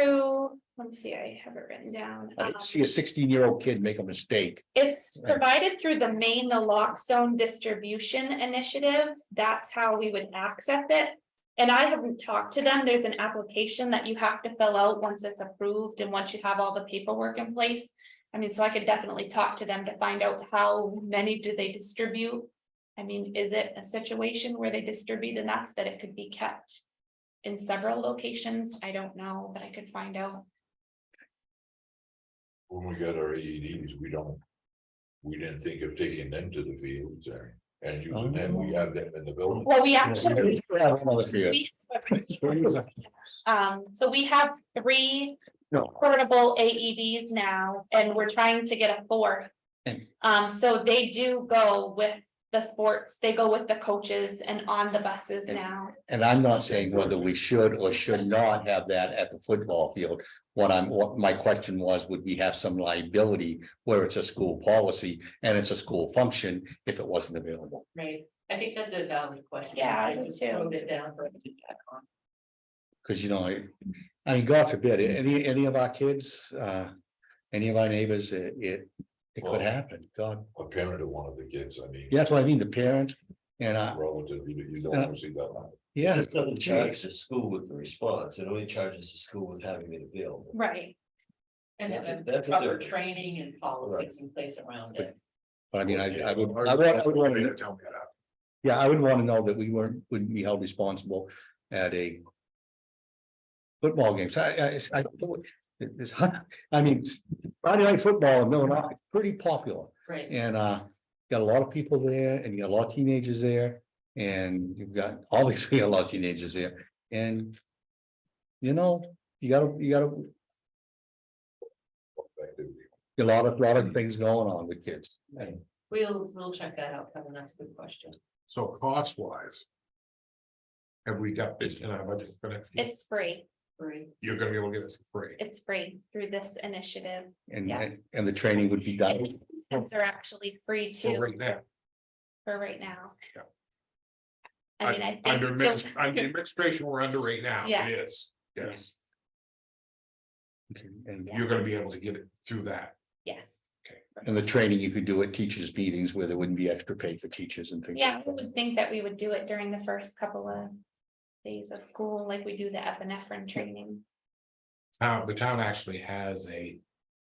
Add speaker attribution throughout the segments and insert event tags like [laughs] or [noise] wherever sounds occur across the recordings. Speaker 1: through, let me see, I have it written down.
Speaker 2: I hate
Speaker 1: Um,
Speaker 2: to see a sixteen-year-old kid make a mistake.
Speaker 1: It's
Speaker 2: Uh, Right.
Speaker 1: provided through the main naloxone distribution initiative. That's how we would access it. And I haven't talked to them. There's an application that you have to fill out once it's approved and once you have all the paperwork in place. I mean, so I could definitely talk to them to find out how many do they distribute? I mean, is it a situation where they distribute enough that it could be kept? In several locations? I don't know, but I could find out.
Speaker 3: when we got our AEDs, we don't. We didn't think of taking them to the fields or, and you, and then we have them in the building.
Speaker 1: Well, we
Speaker 2: Yeah,
Speaker 1: actually.
Speaker 2: we have another fear.
Speaker 1: We Um, so we have three
Speaker 2: No.
Speaker 1: portable AEDs now, and we're trying to get a fourth.
Speaker 2: Mm.
Speaker 1: Um, so they do go with the sports, they go with the coaches and on the buses now.
Speaker 2: And I'm not saying whether we should or should not have that at the football field. What I'm, what my question was, would we have some liability where it's a school policy and it's a school function if it wasn't available?
Speaker 4: Right, I think that's a valid question.
Speaker 1: Yeah, I do
Speaker 4: just
Speaker 1: too.
Speaker 4: Wrote it down for us to check on.
Speaker 2: Cause you know, I, I mean, God forbid, any, any of our kids, uh, any of our neighbors, it, it, it could happen, God.
Speaker 3: A parent of one of the kids, I mean.
Speaker 2: Yeah, that's what I mean, the parent and, uh,
Speaker 3: Relative, you you don't want to see that. one.
Speaker 2: yeah,
Speaker 5: It doesn't
Speaker 2: Jeez.
Speaker 5: charge the school with the response, it only charges the school with having it available.
Speaker 1: Right.
Speaker 4: And
Speaker 5: That's a-
Speaker 4: have
Speaker 5: that's a
Speaker 4: proper
Speaker 5: difference.
Speaker 4: training and politics in place around it.
Speaker 2: but I mean, I, I would, I would- I would want to. Yeah, I would want to know that we weren't, wouldn't be held responsible at a. Football games, I, I, I, it's, hun- I mean, Friday night football, no, not pretty popular,
Speaker 4: Right,
Speaker 2: and, uh. Got a lot of people there, and you got a lot of teenagers there, and you've got, [laughs] obviously, a lot of teenagers there, and. You know, you gotta, you gotta, a lot of, lot of things going on with kids, and
Speaker 4: we'll, we'll check that out, Kevin, that's a good question.
Speaker 6: So cost wise. Have we got this in our budget for next year?
Speaker 1: It's free,
Speaker 4: Great.
Speaker 6: You're gonna be able to get this for free.
Speaker 1: it's free through this initiative. Yeah.
Speaker 2: and, and the training would be done.
Speaker 1: Kids are actually free
Speaker 6: So
Speaker 1: too [laughs]
Speaker 6: right now,
Speaker 1: for right now.
Speaker 6: Yeah.
Speaker 1: I mean, I think.
Speaker 6: under adminis- under administration, we're under right now,
Speaker 1: Yeah.
Speaker 6: it is, yes,
Speaker 2: Okay, And
Speaker 6: you're gonna be able to get it through that.
Speaker 1: Yes,
Speaker 2: And the training you could do at teachers' meetings where there wouldn't be extra pay for teachers and things.
Speaker 1: yeah, I
Speaker 2: like that.
Speaker 1: would think that we would do it during the first couple of days of school, like we do the epinephrine training.
Speaker 6: Town the town actually has a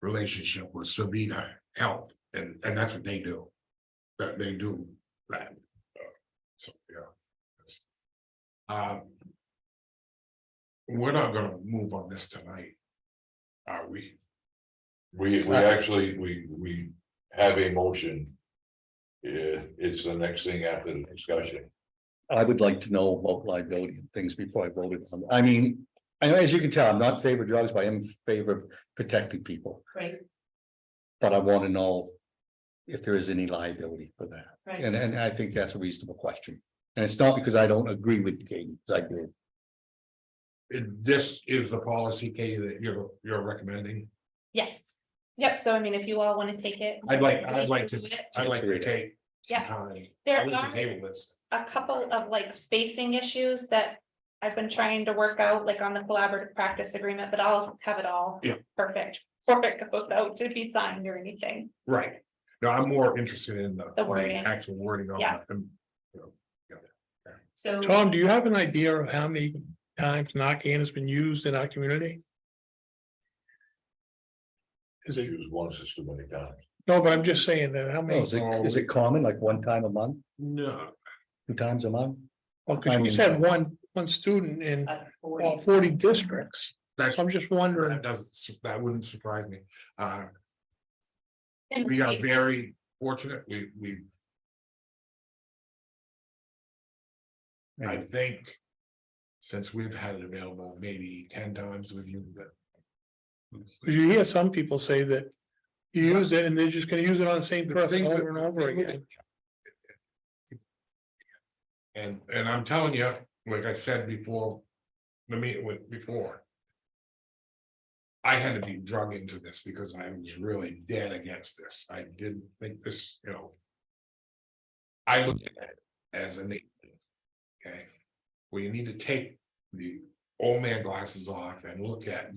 Speaker 6: relationship with Sabina Health, and, and that's what they do. That they do that. uh, So, yeah. that's- Um. We're not gonna move on this tonight. Are we?
Speaker 3: We, we actually, we, we have a motion. It, it's the next thing after the discussion.
Speaker 2: I would like to know about liability and things before I voted on. it. I mean, I know, as you can tell, I'm not in favor of drugs, but I am in favor of protecting people.
Speaker 4: Right,
Speaker 2: But I want to know if there is any liability for that.
Speaker 4: right.
Speaker 2: And, and I think that's a reasonable question. And it's not because I don't agree with Katie, 'cause I do.
Speaker 6: This is the policy, Katie, that you're, you're recommending?
Speaker 1: Yes, yep, so I mean, if you all wanna take it.
Speaker 6: I'd like,
Speaker 1: we
Speaker 6: I'd like
Speaker 1: can
Speaker 6: to,
Speaker 1: do it.
Speaker 6: I'd like to
Speaker 2: Read it.
Speaker 6: take. some
Speaker 1: Yeah.
Speaker 6: time.
Speaker 1: There
Speaker 6: I'd like
Speaker 1: are-
Speaker 6: to table this.
Speaker 1: A couple of like spacing issues that I've been trying to work out, like on the collaborative practice agreement, but I'll have it all.
Speaker 6: Yeah.
Speaker 1: Perfect, perfect, goes out to be signed or anything,
Speaker 6: Right. No, I'm more interested in the,
Speaker 1: The
Speaker 6: the
Speaker 1: wording.
Speaker 6: actual wording on
Speaker 1: Yeah.
Speaker 6: it. And
Speaker 4: So,
Speaker 7: Tom, do you have an idea of how many times Narcan has been used in our community? Is it,
Speaker 3: Use one system many times.
Speaker 7: no, but I'm just saying that, how
Speaker 2: Oh,
Speaker 7: many?
Speaker 2: Is it, is it common, like one time a month,
Speaker 6: No,
Speaker 2: two times a month?
Speaker 7: Well, Oh, 'cause you just had one, one student in
Speaker 4: uh,
Speaker 7: all
Speaker 4: 40.
Speaker 7: forty districts,
Speaker 6: that's,
Speaker 7: so I'm just wondering.
Speaker 6: that doesn't, su- that wouldn't surprise me. Uh,
Speaker 1: And
Speaker 6: we are
Speaker 1: see-
Speaker 6: very fortunate. We, we, I think. Since we've had it available maybe ten times with you, but.
Speaker 7: You hear some people say that you use it and they're just gonna use it on the same
Speaker 6: The
Speaker 7: person
Speaker 6: thing
Speaker 7: over
Speaker 6: with-
Speaker 7: and
Speaker 6: the
Speaker 7: over
Speaker 6: thing with
Speaker 7: again.
Speaker 6: And, and I'm telling you, like I said before, the meeting with, before. I had to be drug into this because I was really dead against this. I didn't think this, you know. I look at it as a need. Okay, we need to take the old man glasses off and look at